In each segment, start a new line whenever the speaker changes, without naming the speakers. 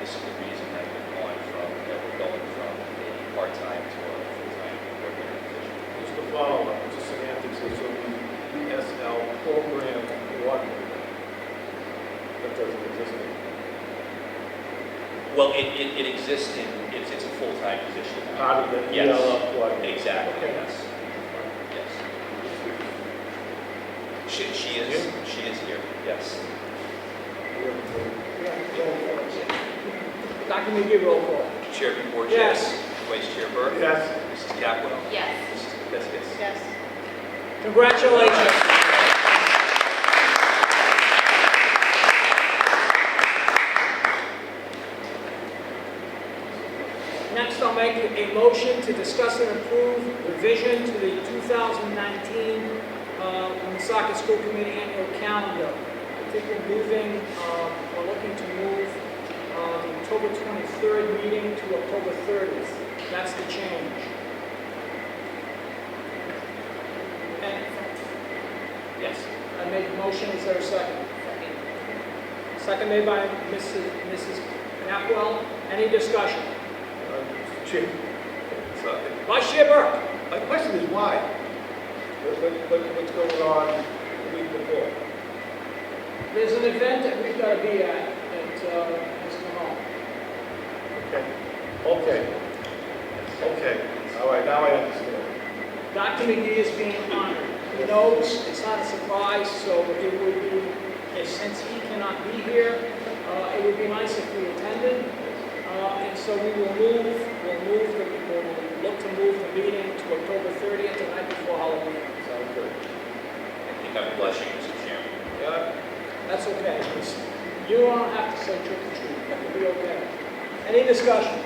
this is the reason that we're going from, that we're going from a part-time to a full-time regular position.
It's the follow-up, it's the semantics, it's the ESL program coordinator. That doesn't exist anymore.
Well, it, it, it exists in, it's, it's a full-time position.
Part of the E
Yes.
ELL coordinator.
Exactly,
Okay.
yes, yes. She, she is, she is here, yes.
Dr. McGee, roll call.
Chair Borges.
Yes.
Vice Chair Burke.
Yes,
Mrs. Capwell.
Yes.
Mrs. Kapiskas.
Yes.
Congratulations. Next, I'll make a motion to discuss and approve revision to the 2019 uh, Woonsocket School Committee annual calendar. I think we're moving, uh, we're looking to move uh, the October 23rd meeting to October 30th. That's the change. And
Yes.
I make a motion, is there a second? Second made by Mrs. Mrs. Knapwell, any discussion?
uh, Chief. So,
Vice Chair Burke?
My question is why? What- what- what- What's going on the week before?
There's an event that we've got to be at, at, uh, Mr. Hall.
Okay, okay, okay, all right, now I understand.
Dr. McGee is being honored. He knows it's not a surprise, so it would be, and since he cannot be here, uh, it would be nice if we attended. Uh, And so we will move, we'll move, the- we'll look to move the meeting to October 30th, the night before Halloween.
Sounds good.
I think I'm blushing, Mr. Chairman.
Yeah,
That's okay. You don't have to say trick or treat, that will be okay. Any discussion?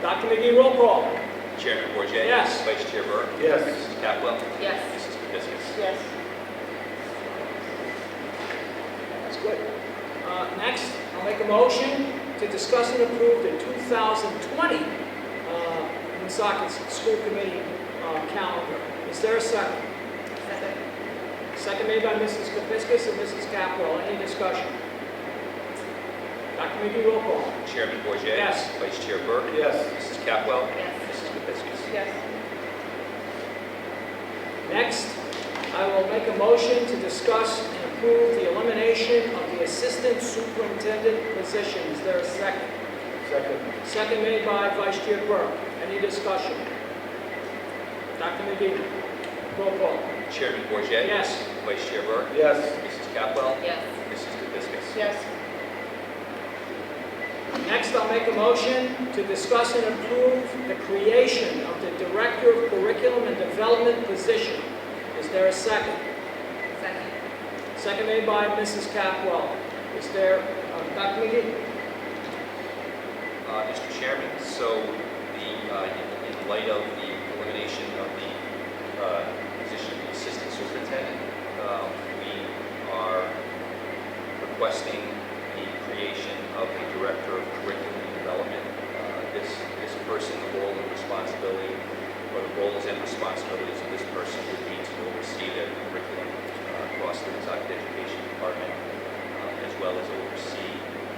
Dr. McGee, roll call.
Chairman Bourget,
Yes.
Vice Chair Burke.
Yes.
Mrs. Capwell.
Yes.
Mrs. Kapiskas.
Yes.
That's good. Uh, Next, I'll make a motion to discuss and approve the 2020 uh, Woonsocket School Committee uh, calendar. Is there a second?
Second.
Second made by Mrs. Kepiscus and Mrs. Capwell. Any discussion? Dr. McGee, roll call.
Chairman Bourget.
Yes.
Vice Chair Burke.
yes,
Mrs. Capwell.
Yes.
Mrs. Kapiskas.
Yes.
Next, I will make a motion to discuss and approve the elimination of the Assistant Superintendent position. Is there a second?
second,
Second made by Vice Chair Burke. Any discussion? Dr. McGee, roll call.
Chairman Bourget.
Yes.
Vice Chair Burke.
yes,
Mrs. Capwell.
Yes.
Mrs. Kapiskas.
Yes.
Next, I'll make a motion to discuss and approve the creation of the Director of Curriculum and Development position. Is there a second?
Second.
Second made by Mrs. Capwell. Is there, uh, Dr. McGee?
Uh, Mr. Chairman, so the, uh, in- in light of the elimination of the uh, position of Assistant Superintendent, um, we are requesting the creation of a Director of Curriculum and Development. Uh, This, this person, the role and responsibility, or the roles and responsibilities of this person would be to oversee the curriculum uh, across the Woonsocket Education Department, uh, as well as oversee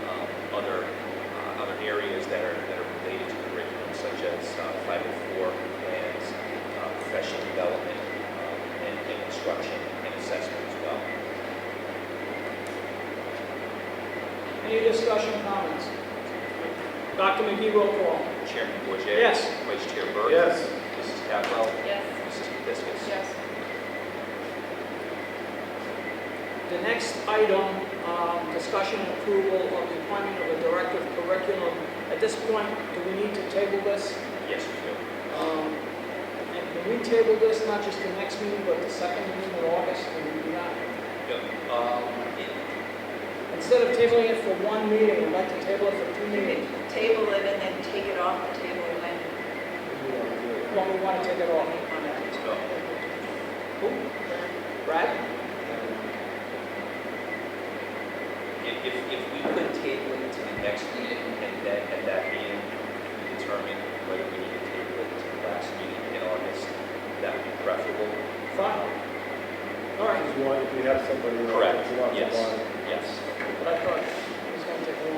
um, other uh, other areas that are, that are related to curriculum, such as uh, 504 plans, uh, professional development, um, and and instruction and assessment as well.
Any discussion, comments? Dr. McGee, roll call.
Chairman Bourget,
Yes.
Vice Chair Burke.
yes,
Mrs. Capwell.
Yes.
Mrs. Kapiskas.
Yes.
The next item, um, discussion and approval of the appointment of a director of curriculum. At this point, do we need to table this?
Yes, we do.
Um, And can we table this, not just the next meeting, but the second meeting in August? Can we do that?
Yep. Um, it-
Instead of tabling it for one meeting, I'd like to table it for two
You
meetings.
can table it and then take it off the table when.
Well, we want to take it off on that.
no.
Who? Brad?
If, if if we could